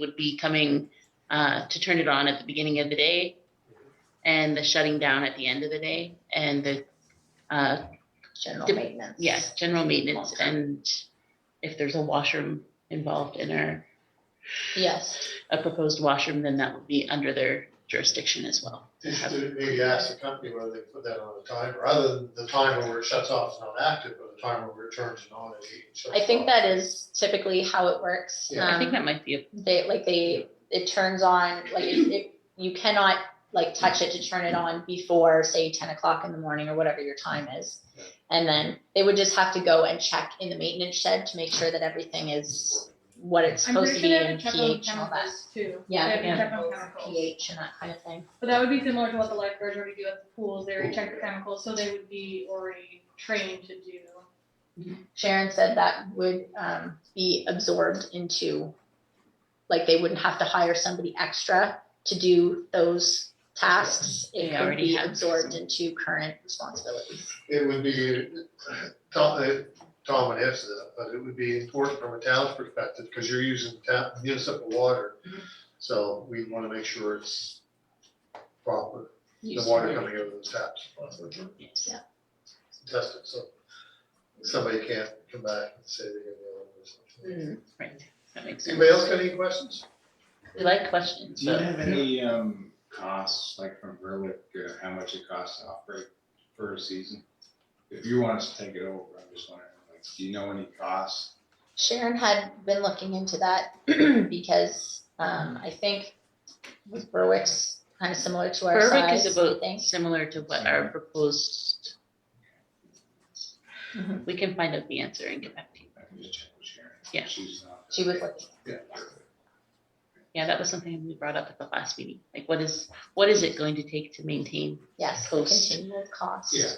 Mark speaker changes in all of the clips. Speaker 1: would be coming uh, to turn it on at the beginning of the day and the shutting down at the end of the day and the, uh,
Speaker 2: general
Speaker 1: Dep-
Speaker 2: maintenance.
Speaker 1: yeah, general maintenance and if there's a washroom involved in our,
Speaker 2: Yes,
Speaker 1: a proposed washroom, then that would be under their jurisdiction as well.
Speaker 3: Just to maybe ask the company whether they put that on a timer, rather than the timer where it shuts off is not active, but the timer where it turns it on and it shuts off.
Speaker 2: I think that is typically how it works.
Speaker 3: Yeah.
Speaker 1: I think
Speaker 2: Um,
Speaker 1: that might be, a
Speaker 2: they, like, they, it turns on, like, it, it- you cannot, like, touch it to turn it on before, say, ten o'clock in the morning or whatever your time is.
Speaker 3: Yeah.
Speaker 2: And then they would just have to go and check in the maintenance shed to make sure that everything is what it's
Speaker 4: I'm
Speaker 2: supposed to
Speaker 4: pretty sure
Speaker 2: be
Speaker 4: they have
Speaker 2: and
Speaker 4: to check
Speaker 2: pH
Speaker 4: on
Speaker 2: and all that.
Speaker 4: chemicals too.
Speaker 2: Yeah,
Speaker 4: They have
Speaker 1: yeah.
Speaker 4: to check on chemicals.
Speaker 2: pH and that kind of thing.
Speaker 4: But that would be similar to what the lifeguards already do at the pools, they already check the chemicals, so they would be already trained to do.
Speaker 2: Sharon said that would um be absorbed into, like, they wouldn't have to hire somebody extra to do those tasks.
Speaker 1: They
Speaker 2: It could
Speaker 1: already
Speaker 2: be
Speaker 1: have
Speaker 2: absorbed into current responsibilities.
Speaker 3: It would be, Tom, uh, Tom would answer that, but it would be important from a town's perspective, because you're using town, municipal water.
Speaker 2: Mm-hmm.
Speaker 3: So we want to make sure it's proper, the water coming out of those taps.
Speaker 1: yes.
Speaker 3: Test it, so somebody can't come back and say they're gonna. be able to do something.
Speaker 1: Mm-hmm.
Speaker 2: Mm-hmm.
Speaker 1: Right, that makes sense.
Speaker 3: Anybody else got any questions?
Speaker 1: We like questions,
Speaker 5: Do you
Speaker 1: so
Speaker 5: have any um costs, like from Verlick, uh, how much it costs to operate for a season? If you want us to take it over, I'm just wondering, like, do you know any costs?
Speaker 2: Sharon had been looking into that because um I think with Berwick's kind of similar to our
Speaker 1: Berwick is
Speaker 2: size, I
Speaker 1: about
Speaker 2: think.
Speaker 1: similar to what our proposed.
Speaker 2: Mhm.
Speaker 1: We can find out the answer and get back to you.
Speaker 5: I can just check with Sharon.
Speaker 1: Yeah.
Speaker 5: She's not.
Speaker 2: She was looking,
Speaker 5: Yeah.
Speaker 1: Yeah, that was something we brought up at the last meeting. Like, what is, what is it going to take to maintain?
Speaker 2: yes,
Speaker 1: Cost.
Speaker 2: continual cost.
Speaker 3: Yeah.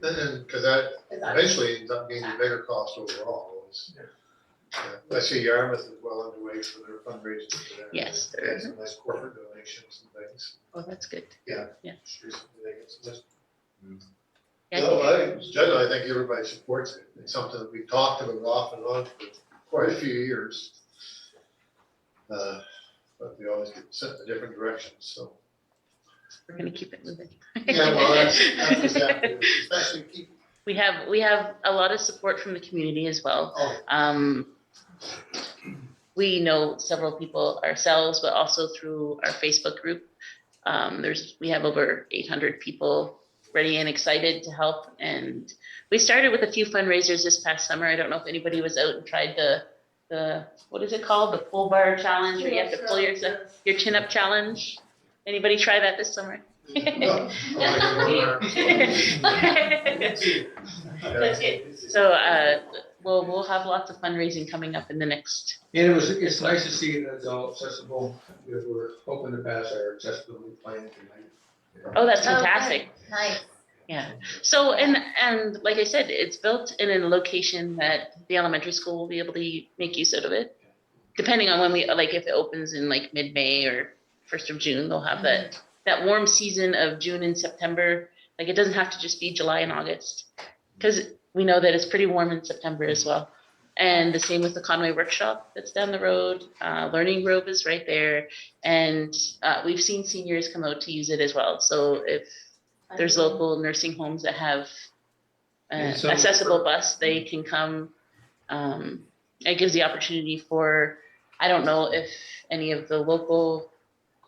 Speaker 3: And then, because that
Speaker 2: Is that-
Speaker 3: eventually ends up being a bigger cost overall. is- Yeah. I see Yarmouth is well underway for their fundraising for that.
Speaker 1: Yes,
Speaker 3: They had some nice corporate donations and things.
Speaker 1: Oh, that's good.
Speaker 3: Recently, they got some nice-
Speaker 1: Yeah,
Speaker 3: No,
Speaker 1: I
Speaker 3: I, think it's generally, I think everybody supports it. It's something that we've talked about off and on for quite a few years. Uh, But we always get sent in different directions, so.
Speaker 1: think We're gonna keep it moving.
Speaker 3: Yeah, well, that's, that's exactly, especially keep,
Speaker 1: We have, we have a lot of support from the community as well.
Speaker 3: oh,
Speaker 1: Um, we know several people ourselves, but also through our Facebook group. Um, there's, we have over eight hundred people ready and excited to help. And we started with a few fundraisers this past summer. I don't know if anybody was out and tried the, the, what is it called? The pull bar challenge where you have to pull yourself, your chin up challenge. Anybody try that this summer?
Speaker 3: no, no, I don't know.
Speaker 1: That's good. So, uh, we'll, we'll have lots of fundraising coming up in the next
Speaker 6: And it was, it's nice to see that it's all accessible, because we're hoping to pass our accessibility plan tonight.
Speaker 1: Oh, that's
Speaker 2: Oh, good.
Speaker 1: fantastic.
Speaker 2: Nice.
Speaker 1: So, and, and like I said, it's built in a location that the elementary school will be able to make use out of it. Depending on when we, like, if it opens in like mid-May or first of June, they'll have that, that warm season of June and September. Like, it doesn't have to just be July and August, because we know that it's pretty warm in September as well. And the same with the Conway Workshop that's down the road. Uh, Learning Grove is right there. And, uh, we've seen seniors come out to use it as well. So if there's local nursing homes that have uh,
Speaker 6: And some-
Speaker 1: accessible bus, they can come. Um, It gives the opportunity for, I don't know if any of the local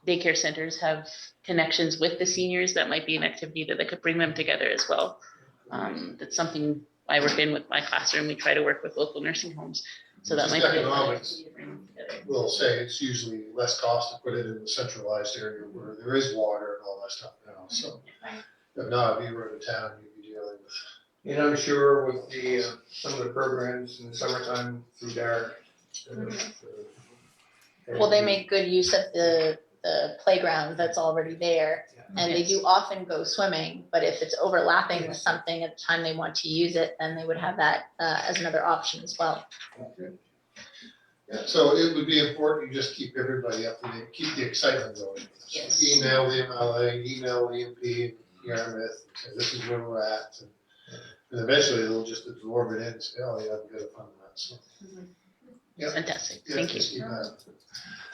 Speaker 1: daycare centers have connections with the seniors, that might be an activity that they could bring them together as well. Um, That's something I work in with my classroom, we try to work with local nursing homes, so that
Speaker 3: Just
Speaker 1: might be. a fun
Speaker 3: economics.
Speaker 1: activity to bring them together.
Speaker 3: We'll say it's usually less cost to put it in the centralized area where there is water and all that stuff now, so. If not, if you were in town, you'd be dealing with.
Speaker 6: And I'm sure with the, uh, some of the programs in the summertime through DART. uh, uh,
Speaker 2: Well, they make good use of the, the playground that's already there. And they do often go swimming, but if it's overlapping with something at the time they want to use it, then they would have that uh, as another option as well.
Speaker 3: Yeah, so it would be important, you just keep everybody up to date, keep the excitement going.
Speaker 1: Yes.
Speaker 3: Email the MLA, email EMP, Yarmouth, say this is where we're at. and- And eventually they'll just absorb it in, and say, oh yeah, I've got a fun one, so.
Speaker 7: Yeah.
Speaker 3: Fantastic,
Speaker 7: Yeah,
Speaker 3: thank you.
Speaker 7: bet.